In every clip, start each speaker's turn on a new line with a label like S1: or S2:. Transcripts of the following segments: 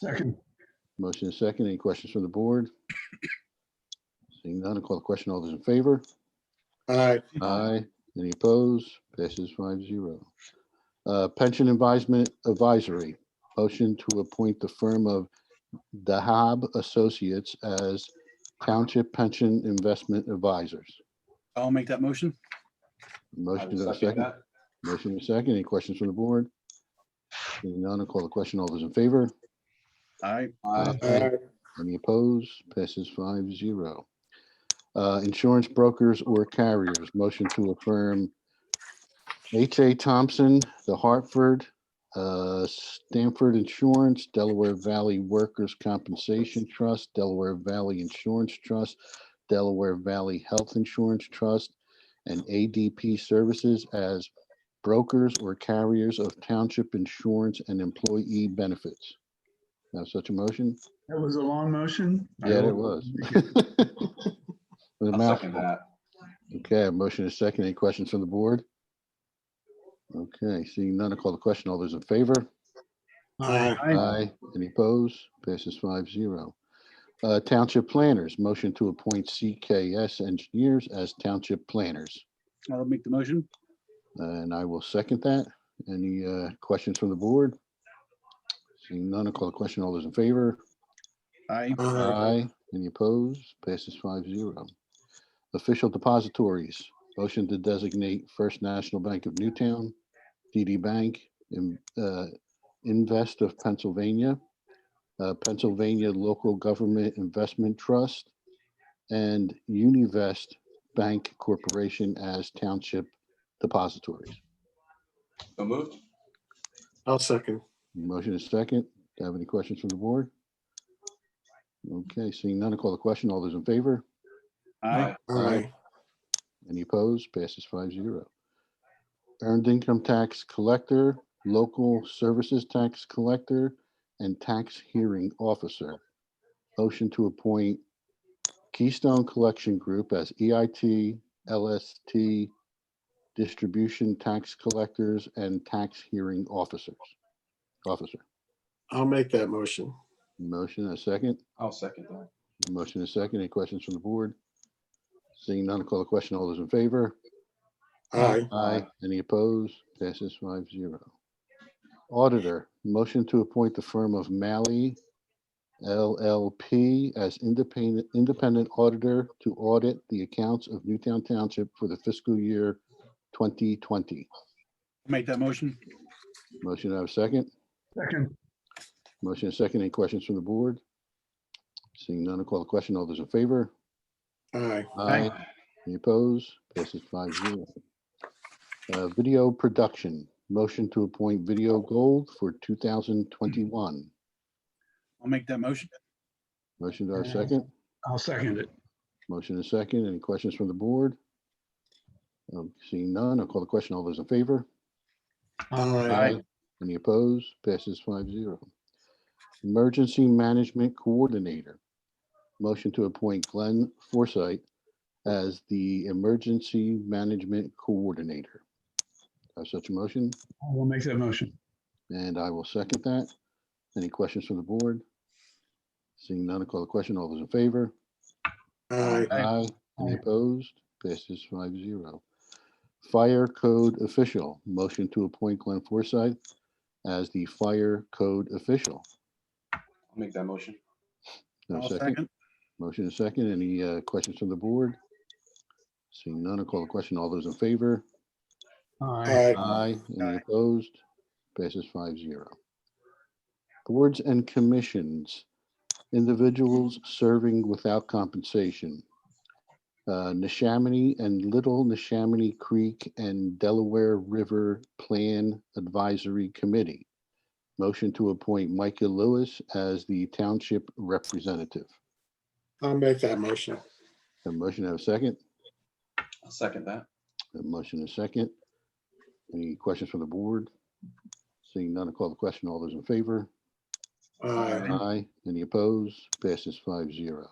S1: Second.
S2: Motion is second. Any questions from the board? Seeing none, I'll call the question. All those in favor?
S1: Aye.
S2: Aye. Any opposed? Passes five zero. Uh, Pension Advisement Advisory, motion to appoint the firm of Dahab Associates as Township Pension Investment Advisors.
S3: I'll make that motion.
S2: Motion is second. Motion is second. Any questions from the board? Seeing none, I'll call the question. All those in favor?
S3: Aye.
S1: Aye.
S2: Any opposed? Passes five zero. Uh, insurance brokers or carriers, motion to affirm H.A. Thompson, The Hartford, uh, Stanford Insurance, Delaware Valley Workers' Compensation Trust, Delaware Valley Insurance Trust, Delaware Valley Health Insurance Trust, and ADP Services as brokers or carriers of township insurance and employee benefits. Have such a motion?
S1: That was a long motion.
S2: Yeah, it was. With a
S4: I'll second
S2: mouthful.
S4: that.
S2: Okay, a motion is second. Any questions from the board? Okay, seeing none, I'll call the question. All those in favor?
S1: Aye.
S3: Aye.
S2: Any opposed? Passes five zero. Uh, Township planners, motion to appoint CKS engineers as township planners. Uh,
S3: I'll make the motion.
S2: And I will second that. Any uh, questions from the board? Seeing none, I'll call the question. All those in favor?
S3: Aye.
S2: Aye. Any opposed? Passes five zero. Official depositories, motion to designate First National Bank of Newtown, TD Bank, in- uh, Invest of Pennsylvania, uh, Pennsylvania Local Government Investment Trust, and Univest Bank Corporation as township depositories.
S4: So moved.
S5: I'll second.
S2: Motion is second. Do you have any questions from the board? Okay, seeing none, I'll call the question. All those in favor?
S3: Aye.
S5: Aye.
S2: Any opposed? Passes five zero. Earned income tax collector, local services tax collector, and tax hearing officer. Motion to appoint Keystone Collection Group as E EIT, LST, distribution tax collectors and tax hearing officers. Officer,
S5: I'll make that motion.
S2: motion and a second.
S4: I'll second that.
S2: Motion and a second. Any questions from the board? Seeing none, I'll call the question. All those in favor?
S5: Aye.
S2: Aye.
S4: Aye.
S2: Any opposed? Passes five zero. Auditor, motion to appoint the firm of Malley LLP as independent, independent auditor to audit the accounts of Newtown Township for the fiscal year 2020.
S3: Make that motion.
S2: Motion to have a second?
S1: Second.
S2: Motion and second. Any questions from the board? Seeing none, I'll call the question. All those in favor?
S5: Aye.
S3: Aye.
S2: Any opposed? Passes five zero. Uh, video production, motion to appoint Video Gold for two thousand twenty-one.
S3: I'll make that motion.
S2: Motion to our
S1: Yeah.
S2: second,
S1: I'll second it.
S2: motion to second. Any questions from the board? Um, seeing none, I'll call the question. All those in favor?
S5: Aye.
S2: Any opposed? Passes five zero. Emergency Management Coordinator. Motion to appoint Glenn Forsythe as the Emergency Management Coordinator. Have such a motion,
S1: I will make that motion.
S2: and I will second that. Any questions from the board? Seeing none, I'll call the question. All those in favor?
S5: Aye.
S3: Aye.
S2: Aye. Any
S1: Aye.
S2: opposed? Passes five zero. Fire code official, motion to appoint Glenn Forsythe as the fire code official.
S4: I'll make that motion.
S2: No
S3: I'll
S2: second.
S3: second.
S2: Motion is second. Any uh, questions from the board? Seeing none, I'll call the question. All those in favor?
S1: Aye.
S5: Aye.
S2: Aye. Any
S3: Aye.
S2: opposed? Passes five zero. Boards and commissions, individuals serving without compensation. Uh, Neshaminy and Little Neshaminy Creek and Delaware River Plan Advisory Committee. Motion to appoint Micah Lewis as the township representative.
S5: I'll make that motion.
S2: A motion have a second?
S4: I'll second that.
S2: A motion and a second. Any questions from the board? Seeing none, I'll call the question. All those in favor?
S5: Aye.
S2: Aye. Any opposed? Passes five zero.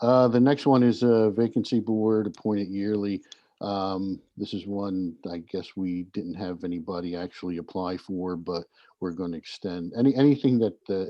S2: Uh, the next one is a vacancy board appointed yearly. Um, this is one, I guess we didn't have anybody actually apply for, but we're going to extend any, anything that uh, the